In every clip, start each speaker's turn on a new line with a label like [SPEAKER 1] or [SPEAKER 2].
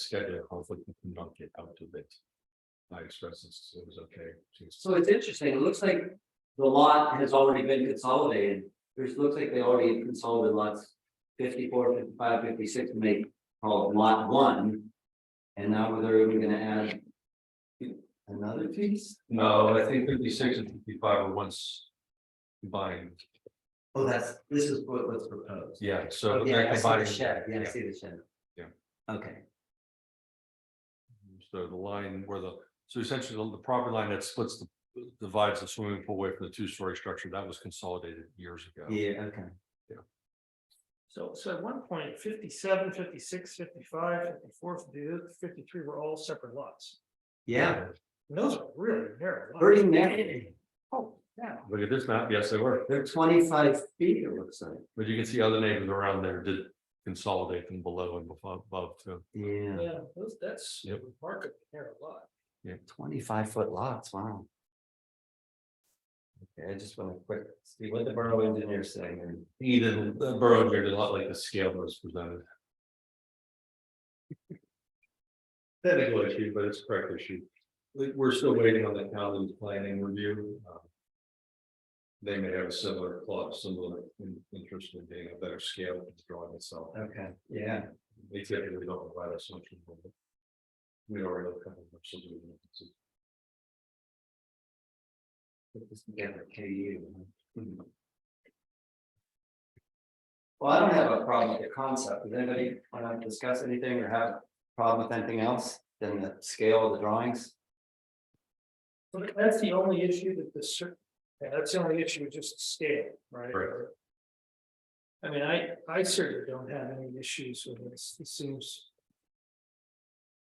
[SPEAKER 1] schedule conflict and not get out of it. I expressed this, it was okay. She's-
[SPEAKER 2] So it's interesting, it looks like the lot has already been consolidated, there's, looks like they already consolidated lots. 54, 55, 56, and they call it lot one. And now they're even gonna add. Another piece?
[SPEAKER 1] No, I think fifty-six and fifty-five are once combined,
[SPEAKER 2] Oh, that's, this is what was proposed.
[SPEAKER 1] yeah, so.
[SPEAKER 2] Oh, Yeah,
[SPEAKER 1] they're
[SPEAKER 2] I see the
[SPEAKER 1] combining-
[SPEAKER 2] shed, yeah, I
[SPEAKER 1] yeah.
[SPEAKER 2] see the shed.
[SPEAKER 1] Yeah.
[SPEAKER 2] Okay,
[SPEAKER 1] So the line where the, so essentially the- the property line that splits the, divides the swimming pool away from the two-story structure, that was consolidated years ago.
[SPEAKER 2] yeah, okay.
[SPEAKER 3] So, so at one point, 57, 56, 55, 54, 52, 53 were all separate lots.
[SPEAKER 2] Yeah,
[SPEAKER 3] And those are really narrow. lots.
[SPEAKER 2] pretty narrow.
[SPEAKER 3] Oh, yeah.
[SPEAKER 1] Look at this map, yes, they were,
[SPEAKER 2] They're twenty-five feet, it looks like.
[SPEAKER 1] but you can see other neighbors around there did consolidate them below and above, above too.
[SPEAKER 2] Yeah,
[SPEAKER 3] Yeah, those, that's
[SPEAKER 1] Yep.
[SPEAKER 3] remarkably narrow lot.
[SPEAKER 2] twenty-five foot lots, wow. Okay, I just want to quick, see what the borough engineer saying and
[SPEAKER 1] He did, the borough engineer did a lot like the scale that was presented. Technical issue, but it's a correct issue. We- We're still waiting on the county's planning review. Um, They may have a similar plot, similar in- interest in being a better scale of the drawing itself.
[SPEAKER 2] Okay, yeah,
[SPEAKER 1] They typically don't provide us much. info, but We already have kind of much to do.
[SPEAKER 2] put this together, KU. huh? Well, I don't have a problem with the concept. Does anybody want to discuss anything or have a problem with anything else than the scale of the drawings?
[SPEAKER 3] But that's the only issue that the cer- yeah, that's the only issue, just scale, right?
[SPEAKER 1] Right.
[SPEAKER 3] I mean, I, I certainly don't have any issues with this, it seems.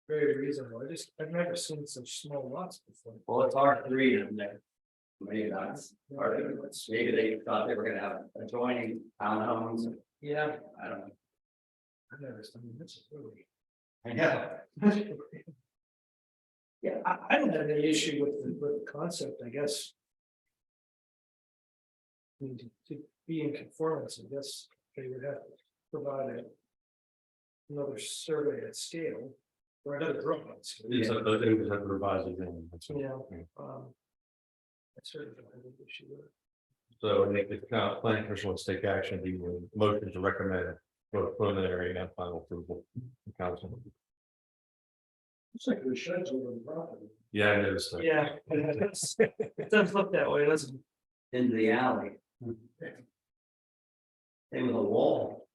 [SPEAKER 3] Very reasonable, I just, I've never seen such small lots before.
[SPEAKER 2] Well, it's R three in there. Maybe that's, or maybe they thought they were gonna have adjoining townhomes.
[SPEAKER 3] Yeah.
[SPEAKER 2] I don't know.
[SPEAKER 3] I've never, I mean, that's really.
[SPEAKER 2] I know.
[SPEAKER 3] Yeah, I, I don't have any issue with, the- with the concept, I guess. I mean, to- to be in conformance, I guess they would have to provide a. Another survey at scale, or another drawing. at scale,
[SPEAKER 1] It's a, they would have to revise it then, that's all.
[SPEAKER 3] You know,
[SPEAKER 1] Yeah.
[SPEAKER 3] um. I certainly don't have an issue with it.
[SPEAKER 1] So I think the uh, planning commission wants to take action, the motion to recommend both preliminary and final approval. to Council.
[SPEAKER 3] It's like the sheds over the property.
[SPEAKER 1] Yeah, I noticed that.
[SPEAKER 3] Yeah. It does look that way, doesn't it?
[SPEAKER 2] into the alley. They were the wall.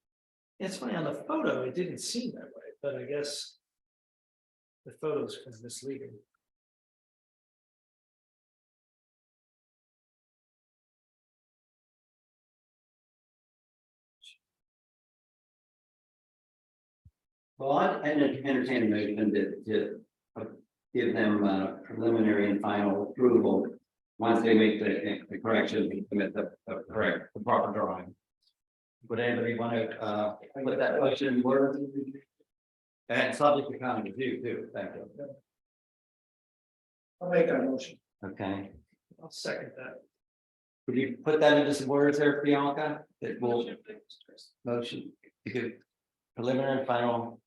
[SPEAKER 3] It's funny, on the photo, it didn't seem that way, but I guess. The photo's kind of misleading.
[SPEAKER 2] Well, I entertain a motion to, to uh, give them uh, preliminary and final approval. Once they make the, the correction, we submit the, the correct, the proper drawing. Would anybody want to, uh, put that motion in words? And subject to county review too, thank you.
[SPEAKER 3] I'll make that motion.
[SPEAKER 2] Okay,
[SPEAKER 3] I'll second that.
[SPEAKER 2] could you put that into some words there, Bianca? That will Motion to give preliminary and final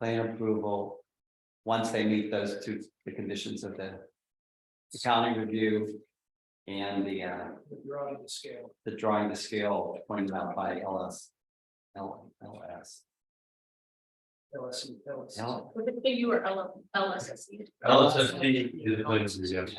[SPEAKER 2] plan approval. Once they meet those two, the conditions of the. County review. And the uh,
[SPEAKER 3] You're on the scale.
[SPEAKER 2] the drawing to scale pointed out by LS. L- LS.
[SPEAKER 3] LSE, LSE.
[SPEAKER 2] L-
[SPEAKER 4] With the you were L S S E.
[SPEAKER 1] LSFD is the plan, yes.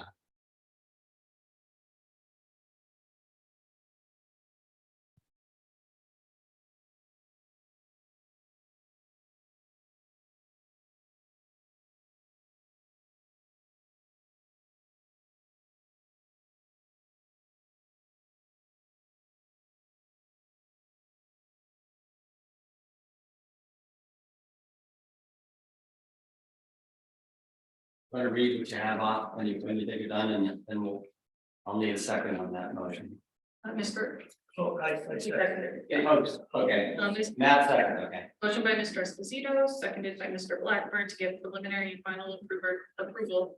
[SPEAKER 2] Want to read what you have off when you, when you think you're done and then we'll. I'll need a second on that motion.
[SPEAKER 4] Uh, Mr.
[SPEAKER 3] Oh, I, I
[SPEAKER 4] Mr.
[SPEAKER 3] second.
[SPEAKER 4] President.
[SPEAKER 2] Oh, Okay,
[SPEAKER 4] Um, this
[SPEAKER 2] Matt second, okay.
[SPEAKER 4] motion by Mr. Esposito, seconded by Mr. Blackburn to give preliminary and final approver, approval.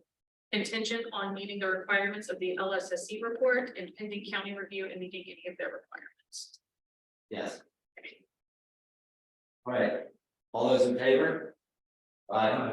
[SPEAKER 4] Contingent on meeting the requirements of the L S S E report and pending county review and meeting any of their requirements.
[SPEAKER 2] Yes. All right, all those in favor? Aye.